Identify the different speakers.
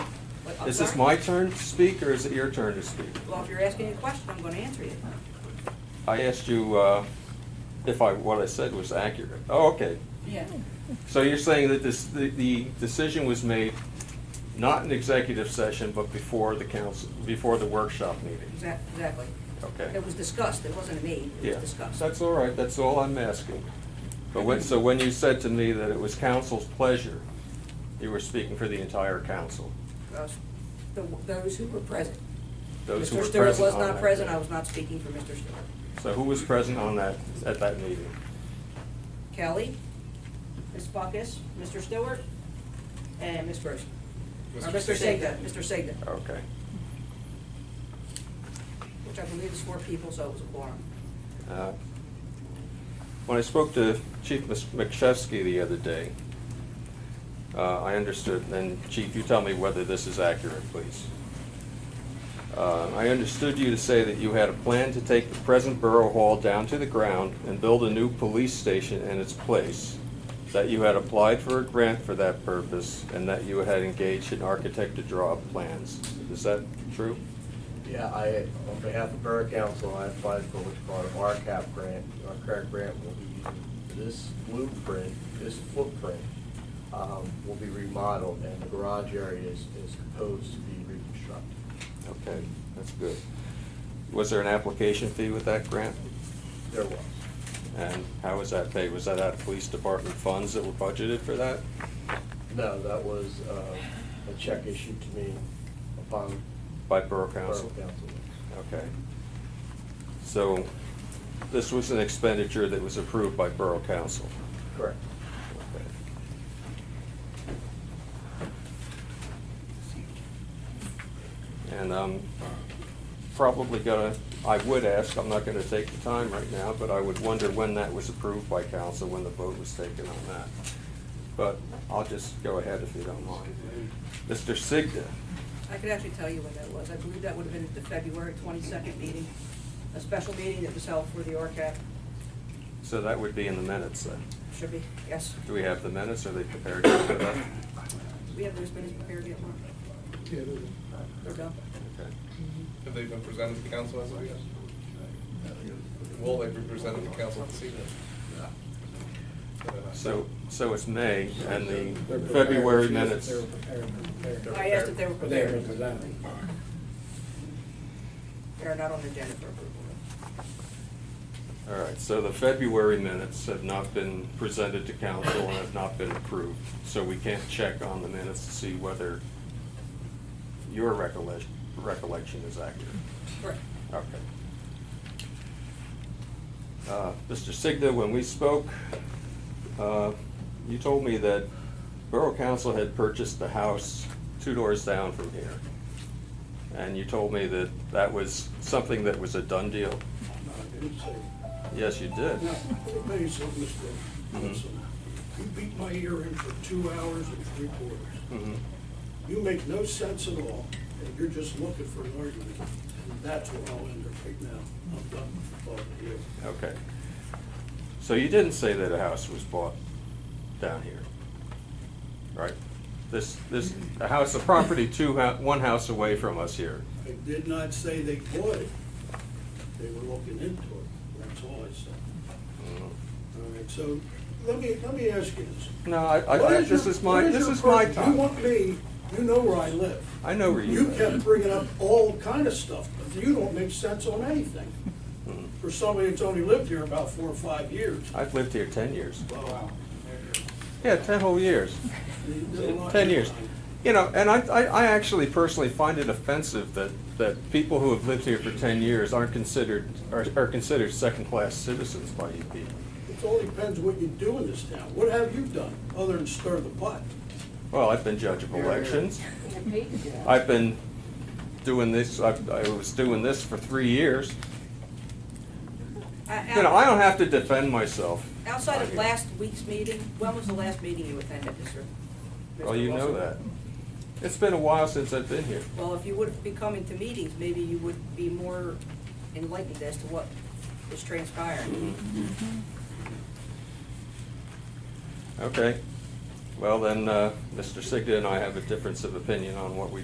Speaker 1: I'm
Speaker 2: Is this
Speaker 1: sorry.
Speaker 2: my turn to speak, or is it your turn to speak?
Speaker 1: Well, if you're asking a question, I'm gonna answer you.
Speaker 2: I asked you uh, if I, what I said was accurate. Oh, okay.
Speaker 1: Yeah.
Speaker 2: So you're saying that this, the, the decision was made not in executive session, but before the council, before the workshop meeting?
Speaker 1: Exact- Exactly.
Speaker 2: Okay.
Speaker 1: It was discussed, it wasn't made, it
Speaker 2: Yeah,
Speaker 1: was discussed.
Speaker 2: that's all right, that's all I'm asking. But when, so when you said to me that it was council's pleasure, you were speaking for the entire council?
Speaker 1: Us- the- Those who were present.
Speaker 2: Those who were
Speaker 1: Mr. Stewart was
Speaker 2: on
Speaker 1: not
Speaker 2: that
Speaker 1: present,
Speaker 2: day.
Speaker 1: I was not speaking for Mr. Stewart.
Speaker 2: So who was present on that, at that meeting?
Speaker 1: Kelly, Ms. Buckus, Mr. Stewart, and Ms. Gross. Or Mr. Segda, Mr. Segda,
Speaker 2: Okay.
Speaker 1: which I believe is four people, so it was a quorum.
Speaker 2: Uh, When I spoke to Chief Mis- McCheskey the other day, uh, I understood, and Chief, you tell me whether this is accurate, please. Uh, I understood you to say that you had a plan to take the present Borough Hall down to the ground and build a new police station in its place, that you had applied for a grant for that purpose, and that you had engaged an architect to draw up plans. Is that true?
Speaker 3: Yeah, I, on behalf of Borough Council, I applied for what's called an RCAP grant. Our current grant will be using this blueprint, this footprint, um, will be remodeled, and the garage area is, is proposed to be reconstructed.
Speaker 2: Okay, that's good. Was there an application fee with that grant?
Speaker 3: There was.
Speaker 2: And how was that paid? Was that out of police department funds that were budgeted for that?
Speaker 3: No, that was, uh, a check issued to me upon
Speaker 2: By Borough
Speaker 3: Borough
Speaker 2: Council?
Speaker 3: Council.
Speaker 2: Okay. So this was an expenditure that was approved by Borough Council?
Speaker 3: Correct.
Speaker 2: Okay. And I'm probably gonna, I would ask, I'm not gonna take the time right now, but I would wonder when that was approved by council, when the vote was taken on that. But I'll just go ahead if you don't mind. Mr. Sigda,
Speaker 1: I could actually tell you when that was. I believe that would have been at the February twenty-second meeting, a special meeting that was held for the ORCAP.
Speaker 2: so that would be in the minutes then.
Speaker 1: Should be, yes.
Speaker 2: Do we have the minutes? Are they prepared? Okay.
Speaker 1: We have those minutes prepared yet, Mark? They're done.
Speaker 4: Have they been presented to the council as of yet? Will they be presented to the council this evening?
Speaker 2: So, so it's May and the February minutes.
Speaker 1: I asked if they were
Speaker 5: They were
Speaker 1: prepared.
Speaker 5: presented.
Speaker 1: They're not on the agenda for approval.
Speaker 2: All right, so the February minutes have not been presented to council and have not been approved. So we can't check on the minutes to see whether your recollection, recollection is accurate.
Speaker 1: Correct.
Speaker 2: Okay. Uh, Mr. Signa, when we spoke, uh, you told me that Borough Council had purchased the house two doors down from here. And you told me that that was something that was a done deal.
Speaker 5: No, I didn't say.
Speaker 2: Yes, you did.
Speaker 5: Now, let me tell you something, Mr. Wilson. Listen, You beat my ear in for two hours and three quarters.
Speaker 2: Mhm.
Speaker 5: You make no sense at all, and you're just looking for an argument. And that's where I'll end it right now. I'm done with talking to you.
Speaker 2: Okay. So you didn't say that a house was bought down here, right? This, this, a house, a property two, hou- one house away from us here.
Speaker 5: I did not say they bought it. They were looking into it. That's all I said.
Speaker 2: Mhm.
Speaker 5: All right, so let me, let me ask you this.
Speaker 2: No, I,
Speaker 5: What
Speaker 2: I, I- this
Speaker 5: your-
Speaker 2: is my,
Speaker 5: what
Speaker 2: this
Speaker 5: your
Speaker 2: is my
Speaker 5: purpose? You
Speaker 2: time.
Speaker 5: want me, you know where I live.
Speaker 2: I know where you
Speaker 5: You kept
Speaker 2: live.
Speaker 5: bringing up all kind of stuff, but you don't make sense on anything. For somebody that's only lived here about four or five years.
Speaker 2: I've lived here ten years.
Speaker 5: Wow.
Speaker 2: Yeah, ten whole years.
Speaker 5: You did a lot
Speaker 2: Ten
Speaker 5: of
Speaker 2: years.
Speaker 5: time.
Speaker 2: You know, and I, I, I actually personally find it offensive that, that people who have lived here for ten years aren't considered, are, are considered second-class citizens by you people.
Speaker 5: It all depends what you do in this town. What have you done, other than stir the pot?
Speaker 2: Well, I've been judge of elections. I've been doing this, I, I was doing this for three years. You know, I don't have to defend myself.
Speaker 1: Uh, Outside of last week's meeting, when was the last meeting you attended, Mr.?
Speaker 2: Well,
Speaker 1: Mr.
Speaker 2: you know
Speaker 1: Wilson?
Speaker 2: that. It's been a while since I've been here.
Speaker 1: Well, if you would be coming to meetings, maybe you would be more enlightened as to what is transpiring.
Speaker 2: Okay. Well, then, uh, Mr. Sigda and I have a difference of opinion on what we